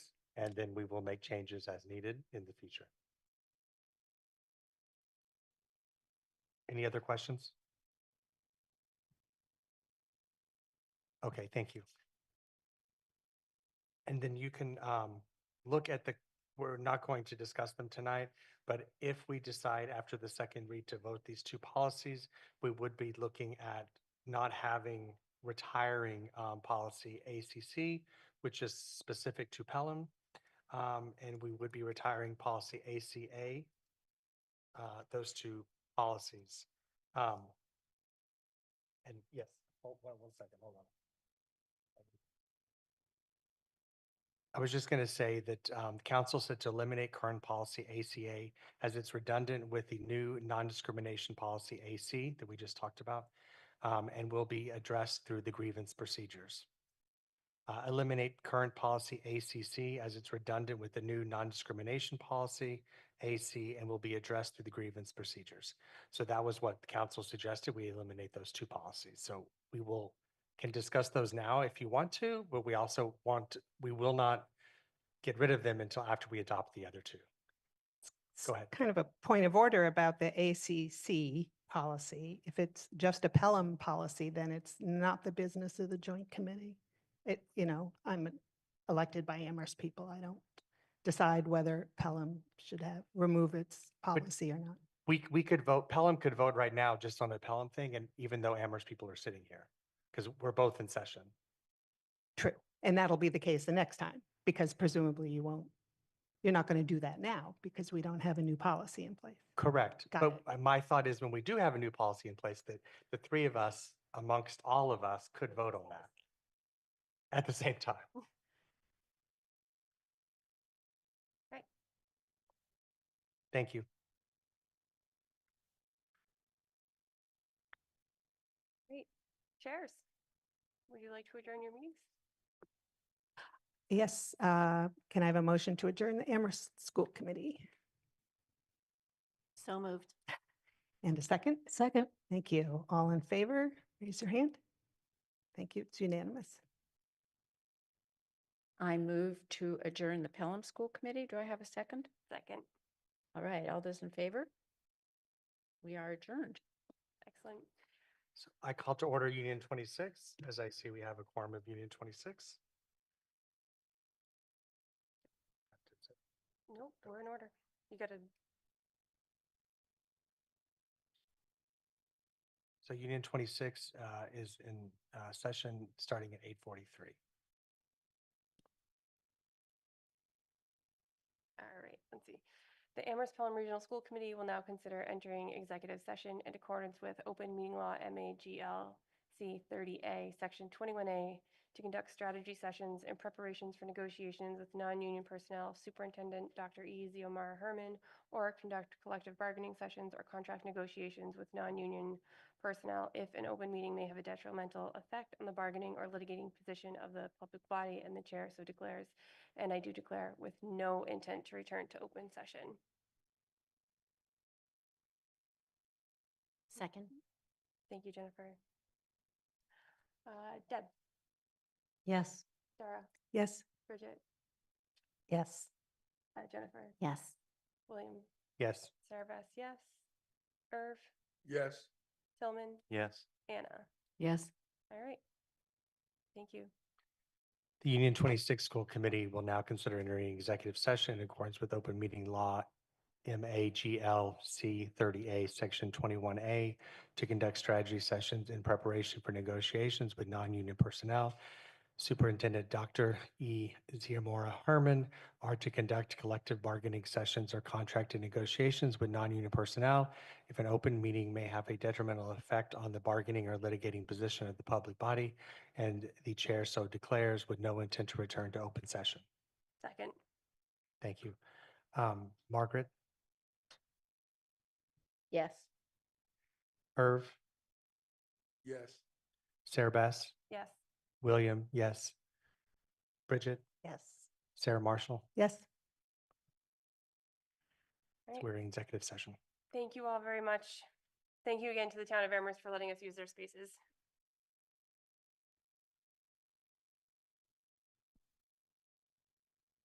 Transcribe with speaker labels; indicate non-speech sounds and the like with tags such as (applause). Speaker 1: And then we will make changes as needed in the future. Any other questions? Okay, thank you. And then you can um, look at the, we're not going to discuss them tonight, but if we decide after the second read to vote these two policies, we would be looking at not having, retiring um, policy ACC, which is specific to Pelham. Um, And we would be retiring policy ACA, uh, those two policies. Um, And yes, hold one, one second, hold on. I was just going to say that um, council said to eliminate current policy ACA as it's redundant with the new non-discrimination policy AC that we just talked about um, and will be addressed through the grievance procedures. Uh, Eliminate current policy ACC as it's redundant with the new non-discrimination policy AC and will be addressed through the grievance procedures. So that was what the council suggested. We eliminate those two policies. So we will, can discuss those now if you want to, but we also want, we will not get rid of them until after we adopt the other two. Go
Speaker 2: s-
Speaker 1: ahead.
Speaker 2: Kind of a point of order about the ACC policy. If it's just a Pelham policy, then it's not the business of the joint committee. It, you know, I'm elected by Amherst people. I don't decide whether Pelham should have, remove its policy or not.
Speaker 1: We, c- we could vote, Pelham could vote right now just on the Pelham thing, and even though Amherst people are sitting here, because we're both in session.
Speaker 2: True. And that'll be the case the next time, because presumably you won't, you're not going to do that now because we don't have a new policy in place.
Speaker 1: Correct.
Speaker 2: Got
Speaker 1: But
Speaker 2: it.
Speaker 1: uh, my thought is when we do have a new policy in place, that the three of us amongst all of us could vote on that at the same
Speaker 2: (laughs)
Speaker 1: time.
Speaker 3: Right.
Speaker 1: Thank you.
Speaker 3: Chairs, would you like to adjourn your meetings?
Speaker 2: Yes, uh, can I have a motion to adjourn the Amherst School Committee?
Speaker 3: So moved.
Speaker 2: And a second? Second. Thank you. All in favor, raise your hand. Thank you. It's unanimous.
Speaker 4: I move to adjourn the Pelham School Committee. Do I have a second?
Speaker 3: Second,
Speaker 4: All right, all those in favor? We are adjourned.
Speaker 3: excellent.
Speaker 1: So I call to order Union 26, as I see we have a quorum of Union 26.
Speaker 3: Nope, we're in order. You gotta,
Speaker 1: So Union 26 uh, is in uh, session starting at 8:43.
Speaker 3: all right, let's see. The Amherst Pelham Regional School Committee will now consider entering executive session in accordance with Open Meeting Law MAGL C thirty A, Section twenty-one A, to conduct strategy sessions and preparations for negotiations with non-union personnel, Superintendent Dr. E. Ziomara Herman, or conduct collective bargaining sessions or contract negotiations with non-union personnel if an open meeting may have a detrimental effect on the bargaining or litigating position of the public body and the chair so declares. And I do declare with no intent to return to open session.
Speaker 4: Second.
Speaker 3: Thank you, Jennifer. Uh, Deb,
Speaker 4: Yes.
Speaker 3: Dara,
Speaker 2: Yes?
Speaker 3: Bridget,
Speaker 2: Yes.
Speaker 3: uh, Jennifer,
Speaker 4: Yes.
Speaker 3: William,
Speaker 1: Yes.
Speaker 3: Sarah Bass, yes. Irv,
Speaker 5: Yes.
Speaker 3: Tillman,
Speaker 5: Yes.
Speaker 3: Anna.
Speaker 4: Yes.
Speaker 3: All right. Thank you.
Speaker 1: The Union 26 School Committee will now consider entering executive session in accordance with open meeting law MAGL C 30A, Section 21A, to conduct strategy sessions in preparation for negotiations with non-union personnel. Superintendent Dr. E. Ziamora Herman are to conduct collective bargaining sessions or contract and negotiations with non-union personnel if an open meeting may have a detrimental effect on the bargaining or litigating position of the public body and the chair so declares with no intent to return to open session.
Speaker 3: Second,
Speaker 1: Thank you. Um, Margaret,
Speaker 4: Yes.
Speaker 1: Irv,
Speaker 5: Yes.
Speaker 1: Sarah Bass,
Speaker 3: yes.
Speaker 1: William, yes. Bridget,
Speaker 2: Yes.
Speaker 1: Sarah Marshall,
Speaker 2: Yes.
Speaker 3: All right.
Speaker 1: we're in executive session.
Speaker 3: Thank you all very much. Thank you again to the town of Amherst for letting us use their spaces.